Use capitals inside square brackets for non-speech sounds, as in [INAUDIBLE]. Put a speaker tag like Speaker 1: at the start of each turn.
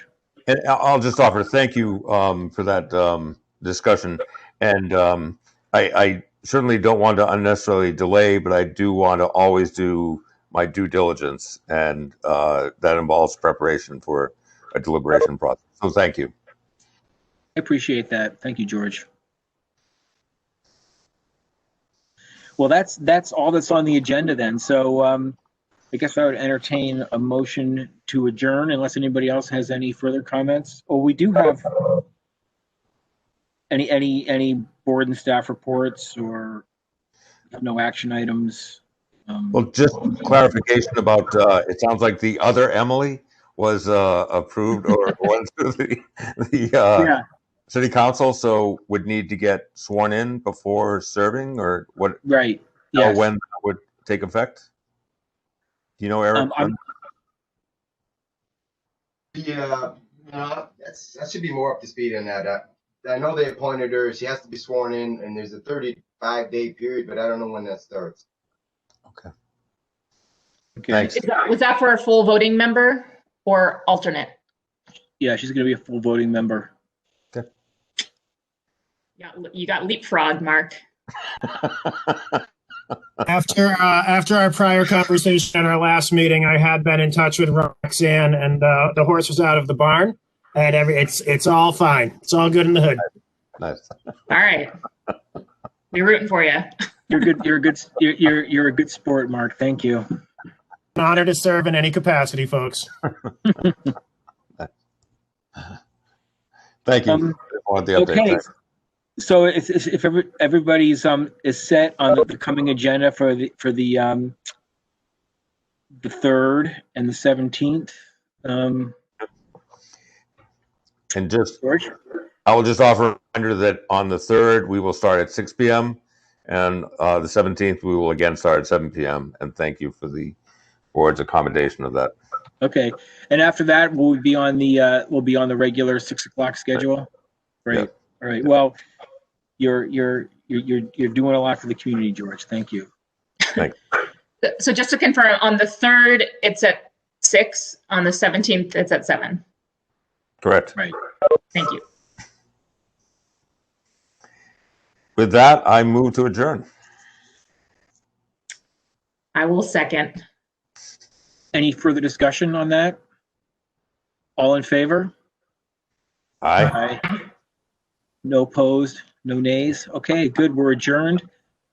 Speaker 1: And I- I'll just offer, thank you um, for that um, discussion. And um, I, I certainly don't want to unnecessarily delay, but I do want to always do my due diligence. And uh, that involves preparation for a deliberation process. So thank you.
Speaker 2: I appreciate that. Thank you, George. Well, that's, that's all that's on the agenda then. So um, I guess I would entertain a motion to adjourn unless anybody else has any further comments. Oh, we do have any, any, any board and staff reports or no action items. Um,
Speaker 1: Well, just clarification about, uh, it sounds like the other Emily was uh, approved or went through the, the uh,
Speaker 2: Yeah,
Speaker 1: city council, so would need to get sworn in before serving or what,
Speaker 2: right.
Speaker 1: know
Speaker 2: Yes.
Speaker 1: Oh, when that would take effect? Do you know, Eric?
Speaker 2: Um, I'm-
Speaker 3: Yeah, no, that's, that should be more up to speed on that. I, I know they appointed her, she has to be sworn in, and there's a thirty-five day period, but I don't know when that starts.
Speaker 2: Okay.
Speaker 1: Thanks.
Speaker 4: Is that, was that for a full voting member or alternate?
Speaker 2: Yeah, she's going to be a full voting member.
Speaker 4: Yeah, you got leapfrog, Mark.
Speaker 5: After uh, after our prior conversation at our last meeting, I had been in touch with Roxanne, and uh, the horse was out of the barn, and every it's it's all fine. It's all good in the hood.
Speaker 1: [LAUGHS] Nice.
Speaker 4: All right. We're rooting for you.
Speaker 2: You're good. You're a good. You're, you're, you're a good sport, Mark. Thank you.
Speaker 5: An honor to serve in any capacity, folks.
Speaker 1: Thank you.
Speaker 2: Um,
Speaker 1: Want the update.
Speaker 2: okay.
Speaker 1: Thanks.
Speaker 2: So if, if if every- everybody's, um, is set on the coming agenda for the, for the, um, the third and the 17th, um,
Speaker 1: And just,
Speaker 2: George?
Speaker 1: I will just offer a reminder that on the 3rd, we will start at six PM. And uh, the 17th, we will again start at seven PM. And thank you for the board's accommodation of that.
Speaker 2: Okay. And after that, we'll be on the, uh, we'll be on the regular six o'clock schedule?
Speaker 1: Yeah.
Speaker 2: Great. All right. Well, you're, you're, you're, you're, you're doing a lot for the community, George. Thank you.
Speaker 4: So just to confirm, on the third, it's at six. On the seventeenth, it's at seven.
Speaker 1: Correct.
Speaker 4: Thank you.
Speaker 1: With that, I move to adjourn.
Speaker 4: I will second.
Speaker 2: Any further discussion on that? All in favor?
Speaker 1: Aye.
Speaker 2: Aye. No opposed, no nays. Okay, good, we're adjourned.